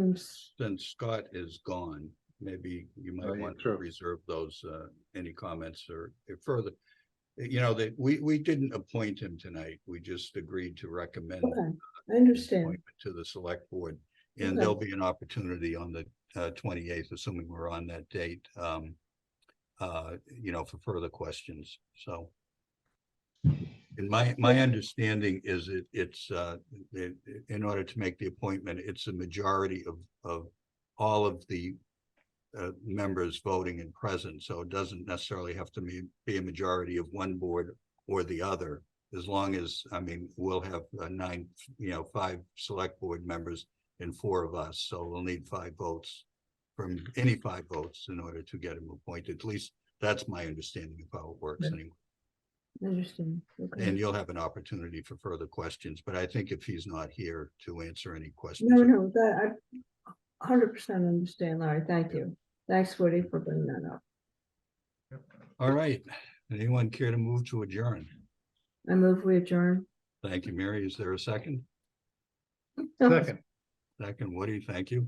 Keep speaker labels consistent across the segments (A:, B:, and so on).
A: seems,
B: since Scott is gone, maybe you
C: Oh,
B: might
C: yeah,
B: want to
C: true.
B: reserve those, uh, any comments or if further. Uh, You know, that we, we didn't appoint him tonight. We just agreed to recommend.
A: okay, I
B: his
A: understand.
B: appointment To the select board, and
A: Okay.
B: there'll be an opportunity on the uh, twenty-eighth, assuming we're on that date, um. Uh, you know, for further questions, so. And my, my understanding is it, it's, uh, i- i- in order to make the appointment, it's a majority of, of all of the. Uh, members voting and present, so it doesn't necessarily have to be, be a majority of one board or the other. As long as, I mean, we'll have uh, nine, you know, five select board members and four of us, so we'll need five votes. From any five votes in order to get him appointed, at least that's my understanding of how it works
A: Yeah.
B: anyway.
A: I understand.
B: And
A: Okay.
B: you'll have an opportunity for further questions, but I think if he's not here to answer any questions.
A: No, no, that, I hundred percent understand, Larry. Thank you. Thanks, Woody, for bringing that up.
B: All right, anyone care to move to adjourn?
A: I move we adjourn.
B: Thank you, Mary. Is there a second?
C: Second,
B: Second, Woody, thank you.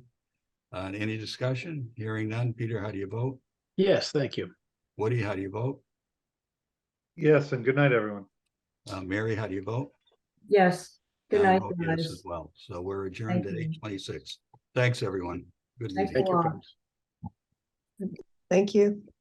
B: Uh, any discussion? Hearing none. Peter, how do you vote?
D: Yes, thank you.
B: Woody, how do you vote?
C: yes, and good night, everyone.
B: Uh, Mary, how do you vote?
A: Yes. Good
B: And I
A: night,
B: vote oh, yes
A: guys.
B: As well, so we're adjourned at
A: Thank you.
B: eight twenty-six. Thanks, everyone. Good
A: Thank
B: meeting.
D: Thank
A: you.
D: you,
A: Wow.
D: friends.
E: Thank you.